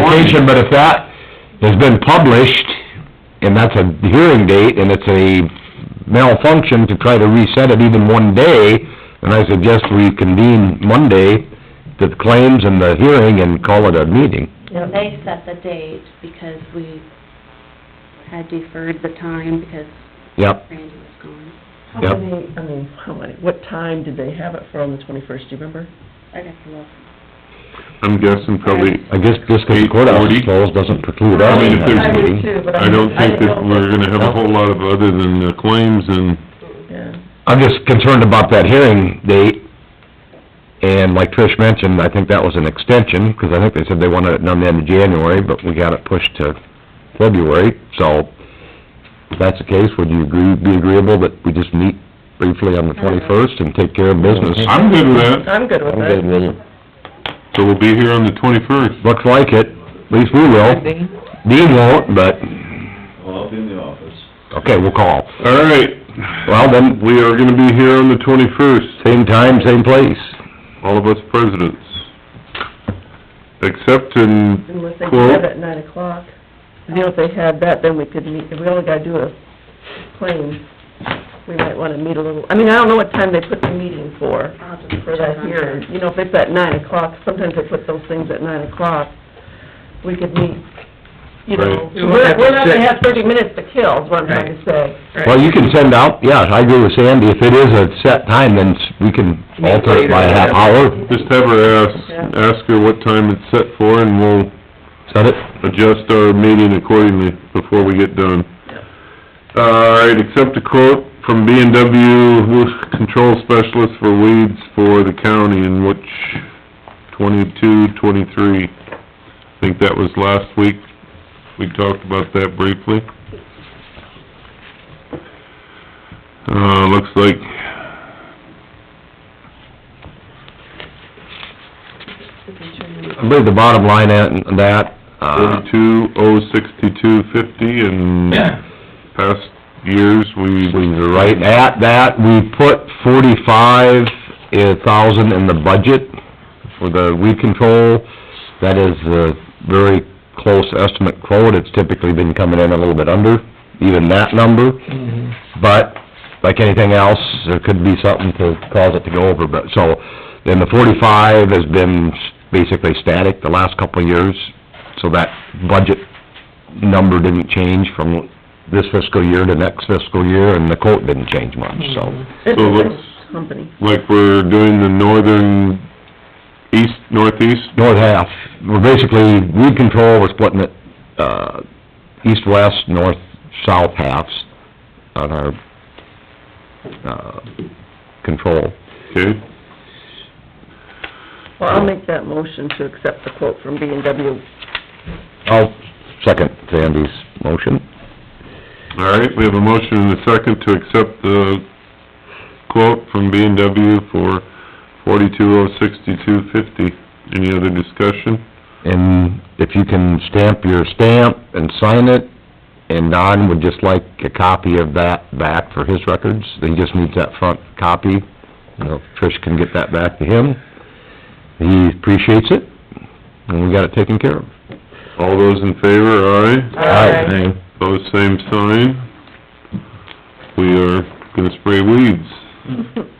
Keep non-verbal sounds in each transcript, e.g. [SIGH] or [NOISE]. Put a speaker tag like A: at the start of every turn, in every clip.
A: vacation, but if that has been published, and that's a hearing date, and it's a malfunction to try to reset it even one day, then I suggest we convene Monday, the claims and the hearing, and call it a meeting.
B: And they set the date because we had deferred the time because
A: Yep,
B: Randy was gone.
C: How
A: Yep.
C: many, I mean, how many, what time did they have it for on the twenty-first, do you remember?
B: I'd have to look.
D: I'm guessing probably,
A: I guess just 'cause the courthouse is
D: 8:40?
A: closed doesn't preclude
D: I
A: us
D: mean,
A: from
D: if
A: having a
D: there's-
A: meeting.
C: too, but
D: I don't think that we're gonna have a whole lot of other than the claims and,
C: Yeah,
A: I'm just concerned about that hearing date, and like Trish mentioned, I think that was an extension, because I think they said they wanted it done the end of January, but we got it pushed to February, so if that's the case, would you agree, be agreeable that we just meet briefly on the twenty-first and take care of business?
D: I'm good with that.
C: I'm good with that.
A: with it.
D: So we'll be here on the twenty-first.
A: Looks like it, at least we will. Dean won't, but,
E: Well, I'll be in the office.
A: okay, we'll call.
D: All right.
A: Well, then,
D: We are gonna be here on the twenty-first,
A: same time, same place.
D: all of us presidents. Except in,
C: Unless they
D: Cool.
C: have it at nine o'clock. You know, if they had that, then we could meet, if we only gotta do a claim, we might wanna meet a little, I mean, I don't know what time they put the meeting for,
B: I'll just
C: for
B: check
C: that
B: on
C: hearing.
B: that.
C: You know, if it's at nine o'clock, sometimes they put those things at nine o'clock, we could meet, you know.
F: Right.
C: We're, we're not gonna have thirty minutes to kill, is what I'm trying to say.
A: Well, you can send out, yeah, I agree with Sandy, if it is a set time, then we can alter it by a half hour,
D: just have her ask, ask her what time it's set for and we'll
A: set it.
D: adjust our meeting accordingly before we get done. All right, accept a quote from B and W Control Specialist for weeds for the county in which twenty-two, twenty-three. I think that was last week. We talked about that briefly. Uh, looks like
A: I believe the bottom line on that, uh,
D: forty-two oh sixty-two fifty and past years, we...
A: we were right at that, we put forty-five uh, thousand in the budget for the weed control. That is a very close estimate quote, it's typically been coming in a little bit under, even that number. But, like anything else, there could be something to cause it to go over, but, so, then the forty-five has been basically static the last couple of years, so that budget number didn't change from this fiscal year to next fiscal year, and the quote didn't change much, so.
C: It's
D: So
C: a
D: let's-
C: nice company.
D: like we're doing the northern, east, northeast,
A: North half, we're basically, weed control, we're splitting it, uh, east-west, north-south halves on our, uh, control.
D: okay?
C: Well, I'll make that motion to accept the quote from B and W.
A: I'll second Sandy's motion.
D: All right, we have a motion and a second to accept the quote from B and W for forty-two oh sixty-two fifty. Any other discussion?
A: And if you can stamp your stamp and sign it, and Don would just like a copy of that back for his records, he just needs that front copy. You know, Trish can get that back to him. He appreciates it, and we got it taken care of.
D: All those in favor, aye?
A: Aye.
D: Pose same sign. We are gonna spray weeds.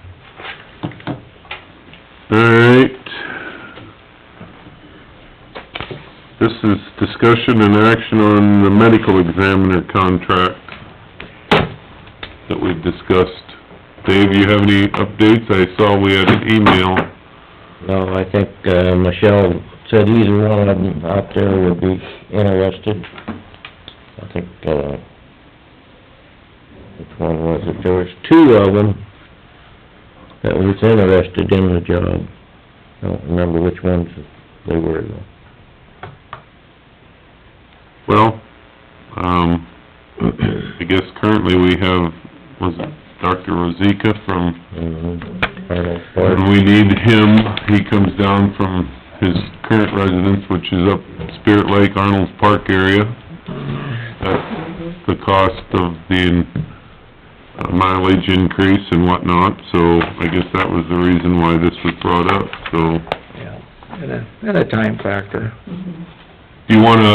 D: All right. This is discussion and action on the medical examiner contract that we've discussed. Dave, you have any updates? I saw we had an email.
G: No, I think, uh, Michelle said either one of them out there would be interested. I think, uh, which one was it? There was two of them that was interested in the job. I don't remember which ones they were. though.
D: Well, um, [CLEARS THROAT] I guess currently we have, was it Dr. Rozika from
G: Mhm. Arnold Park.
D: And we need him, he comes down from his current residence, which is up Spirit Lake, Arnold's Park area. At the cost of the uh, mileage increase and whatnot, so I guess that was the reason why this was brought up, so.
F: Yeah, and a, and a time factor.
D: you wanna